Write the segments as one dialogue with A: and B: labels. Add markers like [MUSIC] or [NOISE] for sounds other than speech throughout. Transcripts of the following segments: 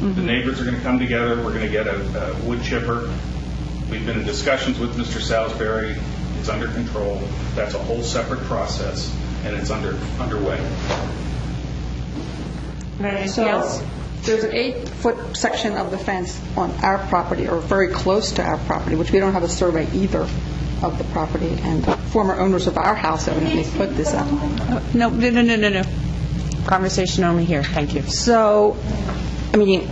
A: The neighbors are going to come together, we're going to get a a wood chipper. We've been in discussions with Mr. Salisbury, it's under control, that's a whole separate process, and it's under, underway.
B: Anything else?
C: So there's an eight-foot section of the fence on our property, or very close to our property, which we don't have a survey either of the property, and the former owners of our house evidently put this up.
B: No, no, no, no, no, no. Conversation only here, thank you.
C: So, I mean,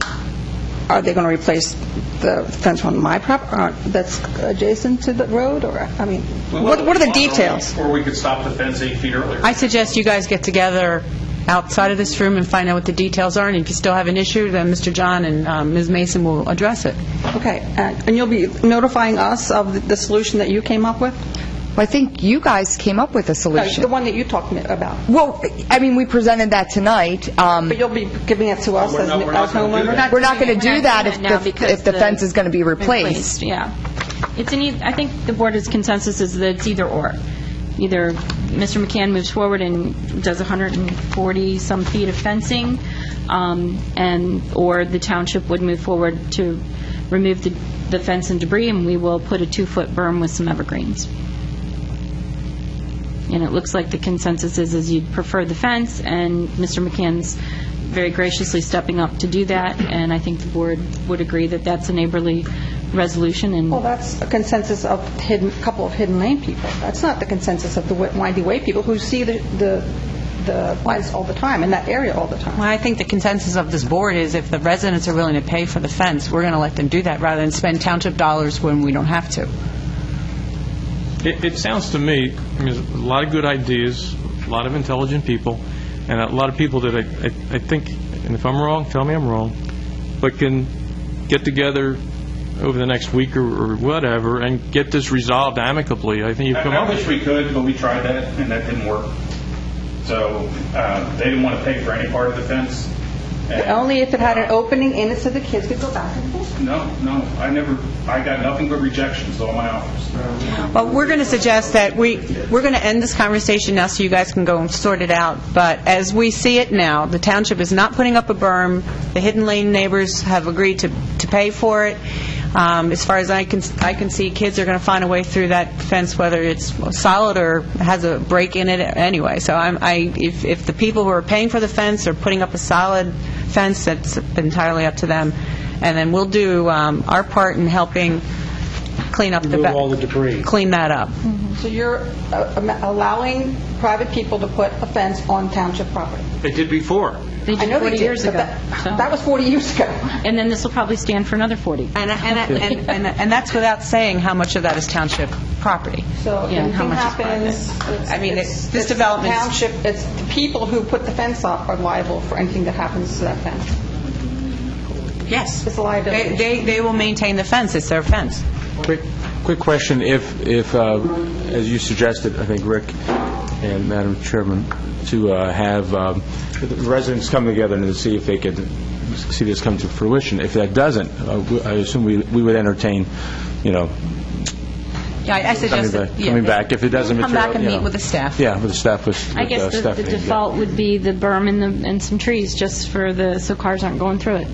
C: are they going to replace the fence on my property that's adjacent to the road, or, I mean, what what are the details?
A: Or we could stop the fence eight feet earlier.
B: I suggest you guys get together outside of this room and find out what the details are, and if you still have an issue, then Mr. John and um, Ms. Mason will address it.
C: Okay, uh, and you'll be notifying us of the- the solution that you came up with?
D: Well, I think you guys came up with a
C: No, The
D: solution.
C: one that you talked me about.
D: Well, I mean, we presented that tonight. Um,
C: But you'll be giving it to us
A: We're
C: as
A: not- we're not
C: as
A: gonna do
C: homeowners?
A: that.
D: We're not going to do that if
E: now
D: the
E: because
D: if the fence is going to be replaced.
E: Yeah. It's an, eith- I think the board's consensus is that it's either or. Either Mr. McCann moves forward and does 140-some feet of fencing, um, and, or the township would move forward to remove the the fence and debris, and we will put a two-foot berm with some evergreens. And it looks like the consensus is, is you'd prefer the fence, and Mr. McCann's very graciously stepping up to do that, and I think the board would agree that that's a neighborly resolution,
C: Well,
E: and
C: that's a consensus of hidden, couple of Hidden Lane people. That's not the consensus of the Wi- Windy Way people who see the, the the lights all the time, in that area all the time.
B: Well, I think the consensus of this board is if the residents are willing to pay for the fence, we're going to let them do that, rather than spend township dollars when we don't have to.
F: It, it sounds to me, I mean, there's a lot of good ideas, a lot of intelligent people, and a lot of people that I, I- I think, and if I'm wrong, tell me I'm wrong, but can get together over the next week or or whatever and get this resolved amicably. I think you've
A: I-
F: come up
A: I
F: with
A: wish we could, but we tried that, and that didn't work. So uh, they didn't want to pay for any part of the fence. and-
C: Only if it had an opening in it so the kids could go back and forth.
A: No, no, I never, I got nothing but rejections on my offers.
B: Well, we're going to suggest that we, we're going to end this conversation now so you guys can go and sort it out, but as we see it now, the township is not putting up a berm, the Hidden Lane neighbors have agreed to, to pay for it. Um, As far as I can, I can see, kids are going to find a way through that fence, whether it's solid or has a break in it anyway. So I'm, I, if, if the people who are paying for the fence are putting up a solid fence, that's entirely up to them, and then we'll do um, our part in helping clean up the...
G: Remove
B: ba-
G: all the debris.
B: Clean that up.
C: So you're uh, am- allowing private people to put a fence on township property?
F: They did before.
E: they
C: I
E: did
C: know they
E: 40
C: did,
E: years
C: but
E: ago.
C: [LAUGHS]
E: so-
C: that- That was 40 years ago.
E: And then this will probably stand for another 40.
B: And, and, and- and, and that's without saying how much of that is township property.
C: So if
E: Yeah, how
C: anything
E: much is private?
C: happens, it's-
B: I mean,
C: it's-
B: it- this
C: it's
B: development's-
C: Township, it's the people who put the fence up are liable for anything that happens to that fence.
B: Yes.
C: It's a liability.
B: They, they, they will maintain the fence, it's their fence.
H: Quick quick question, if, if, uh, as you suggested, I think, Rick and Madam Chairman, to uh, have um, the residents come together and to see if they could see this come to fruition. If that doesn't, uh, we- I assume we we would entertain, you know,
B: Yeah, I I
H: coming
B: suggest that...
H: back-
B: yeah.
H: coming back, if it doesn't
B: Come
H: material...
B: back and
H: you
B: meet
H: know.
B: with the staff.
H: Yeah, with the staff, with
E: I
H: with, uh,
E: guess the- the
H: Stephanie, yeah.
E: default would be the berm and the, and some trees, just for the, so cars aren't going through it.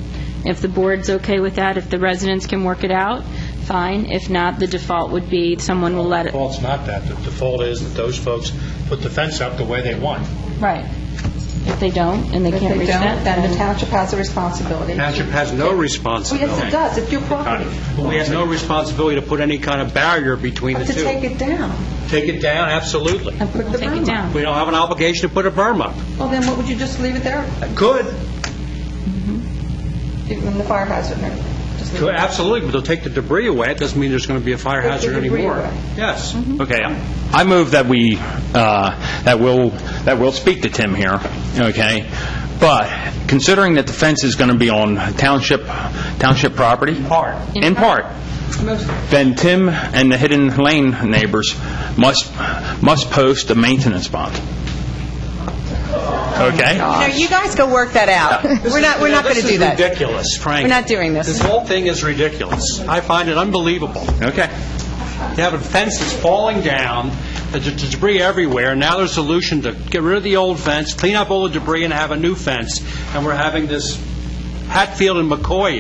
E: If the board's okay with that, if the residents can work it out, fine. If not, the default would be someone will let it,
G: Default's not that. The default is that those folks put the fence up the way they want.
E: right. If they don't, and they
C: If
E: can't
C: they
E: reach that,
C: don't, then the
E: then...
C: township has a responsibility.
G: Township has no
C: Oh,
G: responsibility.
C: yes, it does, it's your property,
G: We have no responsibility to put any kind of barrier between the
C: to
G: two.
C: take it down.
G: Take it down, absolutely.
C: put the
E: Take
C: berm
E: it
C: up.
E: down.
G: We don't have an obligation to put a berm up.
C: Well, then what, would you just leave it there,
G: Could,
C: even the fire hazard and everything? Just leave
G: could,
C: it there.
G: absolutely, but they'll take the debris away. It doesn't mean there's going to be a fire
C: Take the
G: hazard
C: debris
G: anymore.
C: away. Mm-hmm.
G: Yes.
I: Okay, I move that we, uh, that will, that will speak to Tim here, okay? But considering that the fence is going to be on township, township property?
G: Part.
I: In part. Then Tim and the Hidden Lane neighbors must, must post a maintenance bond. Okay?
B: You know, you guys go work that out. We're not, we're not going to do that.
G: This is ridiculous, frankly.
B: We're not doing this.
G: This whole thing is ridiculous. I find it unbelievable.
I: Okay.
G: You have a fence that's falling down, there's there's debris everywhere, and now there's a solution to get rid of the old fence, clean up all the debris, and have a new fence, and we're having this Hatfield and McCoy